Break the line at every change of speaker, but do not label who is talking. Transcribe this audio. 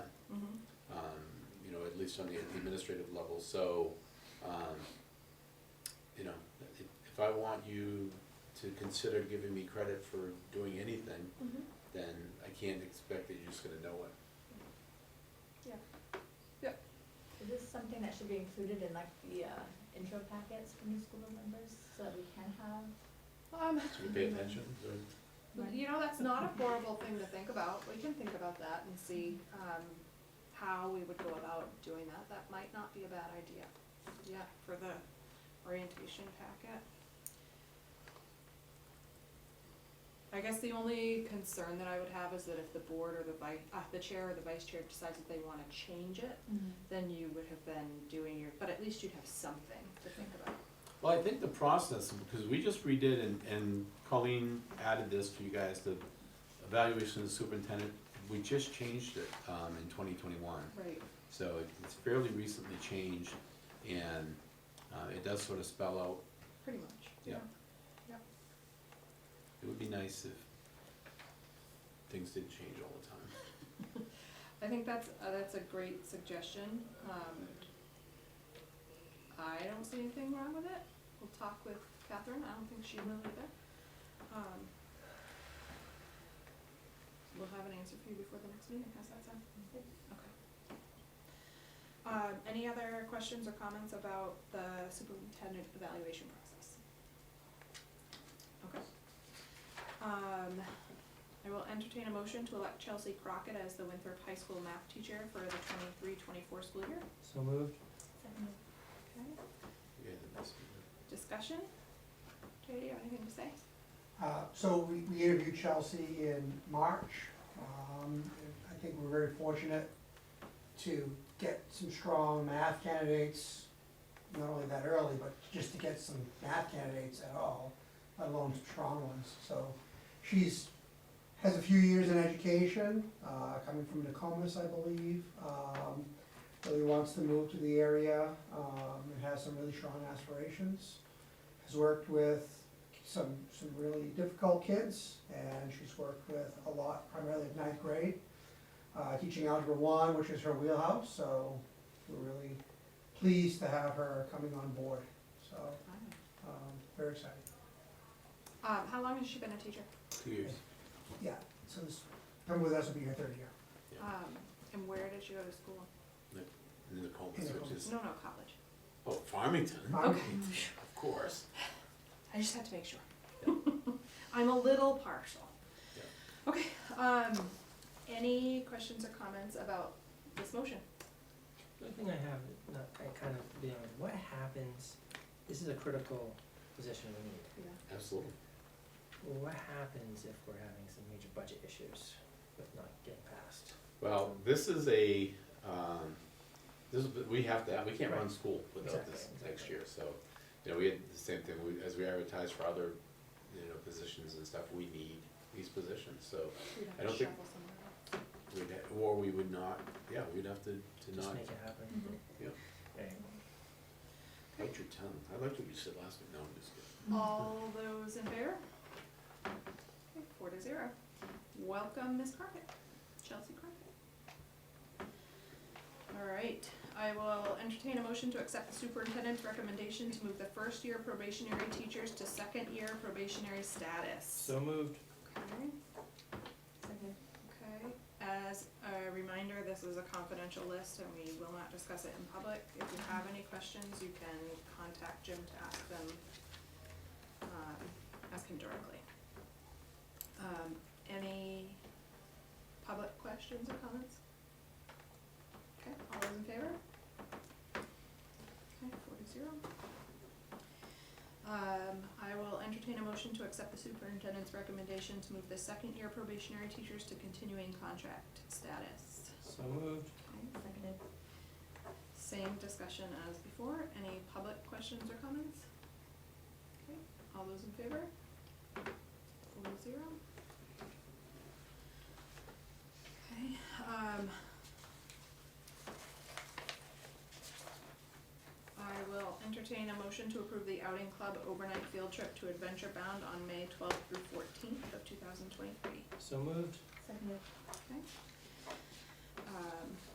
Mm-hmm.
um, least on the administrative level, so, um, you know, if, if I want you to consider giving me credit for doing anything,
Mhm.
then I can't expect that you're just gonna know it.
Is this something that should be included in like the uh, intro packets for new school members so that we can have?
Um,
So you pay attention, or-
you know, that's not a horrible thing to think about, we can think about that and see, um, how we would go about doing that, that might not be a bad idea, yeah, for the orientation packet. I guess the only concern that I would have is that if the board or the vi- uh, the chair or the vice chair decides that they wanna change it,
Mm-hmm.
then you would have been doing your, but at least you'd have something to think about.
Well, I think the process, because we just redid and, and Colleen added this for you guys, the evaluation of the superintendent, we just changed it, um, in twenty twenty-one.
Right.
So it- it's fairly recently changed and, uh, it does sort of spell out,
Pretty much.
Yeah. it would be nice if things didn't change all the time.
I think that's, uh, that's a great suggestion, um, I don't see anything wrong with it, we'll talk with Catherine, I don't think she will either. Um, We'll have an answer for you before the next meeting, how's that sound?
Good.
Okay. Um, any other questions or comments about the superintendent evaluation process? Okay. Um, I will entertain a motion to elect Chelsea Crockett as the Winthrop High School math teacher for the twenty-three, twenty-four school year.
So moved.
Second,
Okay,
Yeah, that's good.
discussion? Jay, do you have anything to say?
Uh, So we we interviewed Chelsea in March. Um, I think we're very fortunate to get some strong math candidates, not only that early, but just to get some math candidates at all, let alone some strong ones. So she's, has a few years in education, uh, coming from Nokomis, I believe. um, Really wants to move to the area um, and has some really strong aspirations. Has worked with some, some really difficult kids, and she's worked with a lot, primarily at ninth grade, uh, teaching Algebra One, which is her wheelhouse, so we're really pleased to have her coming on board, so, um, very excited.
Um, how long has she been a teacher?
Two years.
Yeah, so this, come with us will be her third year.
Yeah.
Um, and where did she go to school?
And then the Coleman's, which is,
No, no, college.
oh, Farmington,
Um,
of course.
I just had to make sure. I'm a little partial.
Yeah.
Okay, um, any questions or comments about this motion?
The only thing I have, not, I kind of, beyond, what happens, this is a critical position we need.
Absolutely.
What happens if we're having some major budget issues with not getting passed?
Well, this is a, um, this is, we have to, we can't run
Right.
school without this
Exactly,
next
exactly.
year, so, you know, we had the same thing, we, as we advertised for other, you know, positions and stuff, we need these positions, so
We'd
I
have
don't
to
think-
shuffle somewhere else.
we'd, ha- or we would not, yeah, we'd have to, to
Just
not
make it happen.
Mhm.
Yeah.
Right.
bite your tongue. I liked what you said last week, no, I'm just kidding.
Hmm. All those in favor? Okay, Four to zero. Welcome, Ms. Crockett, Chelsea Crockett. All right, I will entertain a motion to accept the superintendent's recommendation to move the first-year probationary teachers to second-year probationary status.
So moved.
Okay. Okay, as a reminder, this is a confidential list and we will not discuss it in public. If you have any questions, you can contact Jim to ask them, um, ask him directly. Um, any public questions or comments? Okay, all those in favor? Okay, four to zero. Um, I will entertain a motion to accept the superintendent's recommendation to move the second-year probationary teachers to continuing contract status.
So moved.
Okay,
seconded.
Same discussion as before, any public questions or comments? Okay, all those in favor? Four to zero. Okay, um. I will entertain a motion to approve the outing club overnight field trip to Adventure Bound on May twelfth through fourteenth of two thousand twenty-three.
So moved.
Seconded.
Um,